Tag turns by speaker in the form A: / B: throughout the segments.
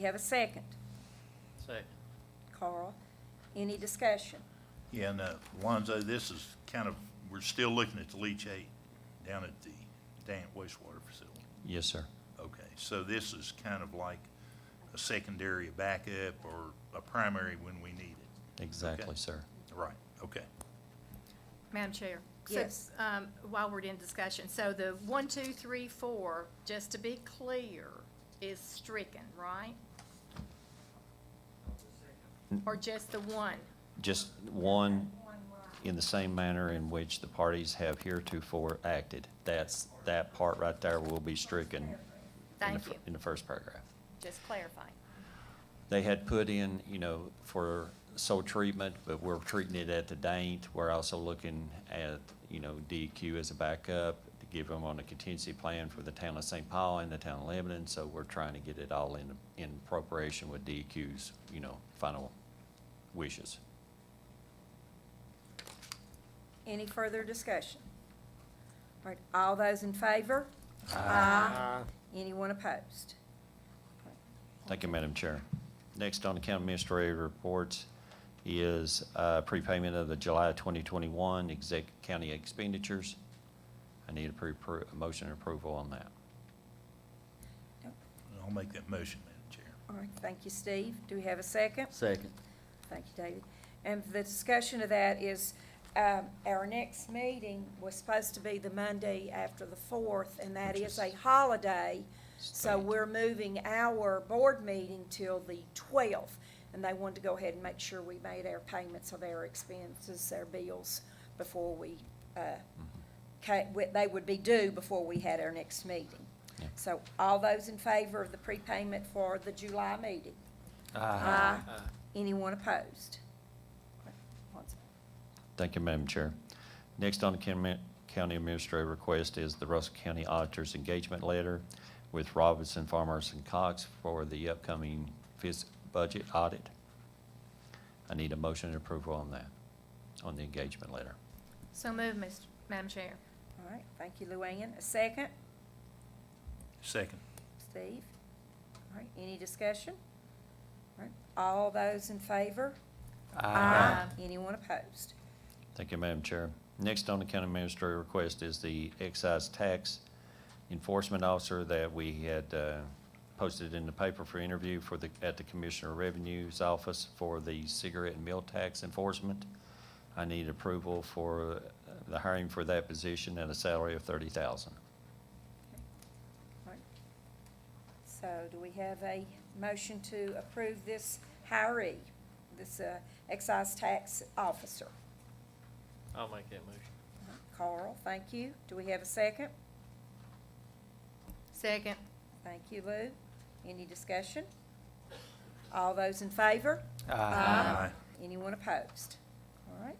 A: You have a second.
B: Second.
A: Carl, any discussion?
C: Yeah, and, uh, Alonzo, this is kind of, we're still looking at the leachate down at the Dant wastewater facility.
D: Yes, sir.
C: Okay, so this is kind of like a secondary backup or a primary when we need it.
D: Exactly, sir.
C: Right, okay.
E: Madam Chair? so,
A: Yes.
E: um, While we're in discussion, so the one, two, three, four, just to be clear, is stricken, right? Or just the one?
D: Just one, in the same manner in which the parties have heretofore acted. That's, that part right there will be stricken. in the
E: Thank
D: fir-
E: you,
D: In the first paragraph.
E: just clarifying.
D: They had put in, you know, for soil treatment, but we're treating it at the Daint. We're also looking at, you know, DEQ as a backup to give them on a contingency plan for the town of St. Paul and the town of Lebanon. So we're trying to get it all in, in preparation with DEQ's, you know, final wishes.
A: Any further discussion? All right, all those in favor? Aye. Anyone opposed?
D: Thank you, Madam Chair. Next on the county administrator reports is uh, prepayment of the July 2021 exec, county expenditures. I need a pre, appro- a motion and approval on that.
C: I'll make that motion, Madam Chair.
A: All right, thank you, Steve. Do we have a second?
B: Second.
A: Thank you, David. And the discussion of that is, um, our next meeting was supposed to be the Monday after the fourth, and that
D: Which
A: is a
D: is-
A: holiday. So
D: State.
A: we're moving our board meeting till the twelfth, and they wanted to go ahead and make sure we made our payments of our expenses, their bills, before we, uh, ca- wi- they would be due before we had our next meeting.
D: Yeah.
A: So all those in favor of the prepayment for the July meeting? Aye. Anyone opposed?
D: Thank you, Madam Chair. Next on the county county administrator request is the Russell County Auditor's Engagement Letter with Robinson, Farmers, and Cox for the upcoming fis, budget audit. I need a motion and approval on that, on the engagement letter.
E: So move, Ms. Madam Chair.
A: All right, thank you, Luann. A second,
C: Second.
A: Steve. All right, any discussion? All right, all those in favor? Ah.
E: Aye.
A: Anyone opposed?
D: Thank you, Madam Chair. Next on the county administrator request is the excise tax enforcement officer that we had uh, posted in the paper for interview for the, at the Commissioner of Revenue's office for the cigarette and meal tax enforcement. I need approval for uh, the hiring for that position at a salary of thirty thousand.
A: All right. So do we have a motion to approve this hiree, this uh, excise tax officer?
B: I'll make that motion.
A: Carl, thank you. Do we have a second?
E: Second.
A: Thank you, Lou. Any discussion? All those in favor?
C: Aye.
A: Anyone opposed? All right,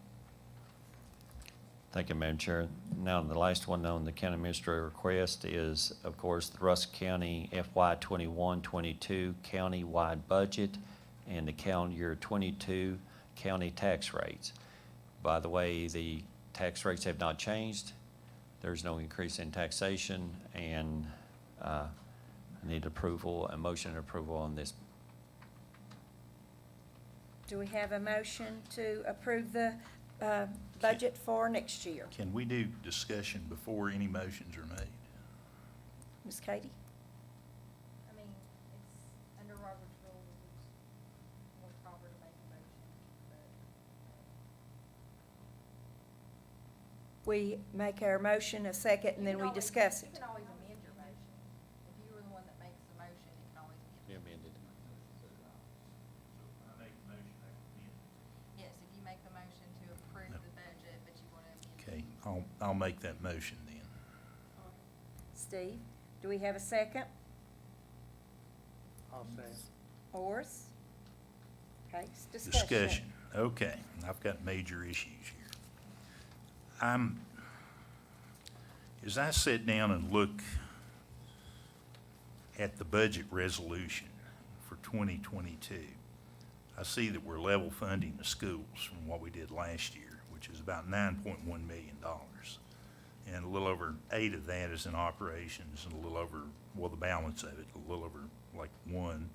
D: Thank you, Madam Chair. Now, the last one on the county administrator request is, of course, the Russell County FY 21-22 county-wide budget and the calendar year twenty-two county tax rates. By the way, the tax rates have not changed. There's no increase in taxation, and uh, I need approval, a motion and approval on this.
A: do we have a motion to approve the uh, budget for next year?
C: Can we do discussion before any motions are made?
A: Ms. Katie?
F: I mean, it's under Robert's rules, it's more proper to make a motion, but. uh,
A: We make our motion a second and
F: You
A: then
F: can
A: we
F: always-
A: discuss
F: You
A: it.
F: can always amend your motion. If you were the one that makes the motion, you can always amend. Yes, if you make the motion to approve the budget, but you want to
C: Okay,
F: amend.
C: I'll, I'll make that motion then.
A: Steve, do we have a second?
G: I'll say.
A: Horace? Okay, it's discussion.
C: Discussion, okay, I've got major issues here. I'm, as I sit down and look at the budget resolution for 2022, I see that we're level funding the schools from what we did last year, which is about $9.1 million. And a little over eight of that is in operations, and a little over, well, the balance of it, a little over like one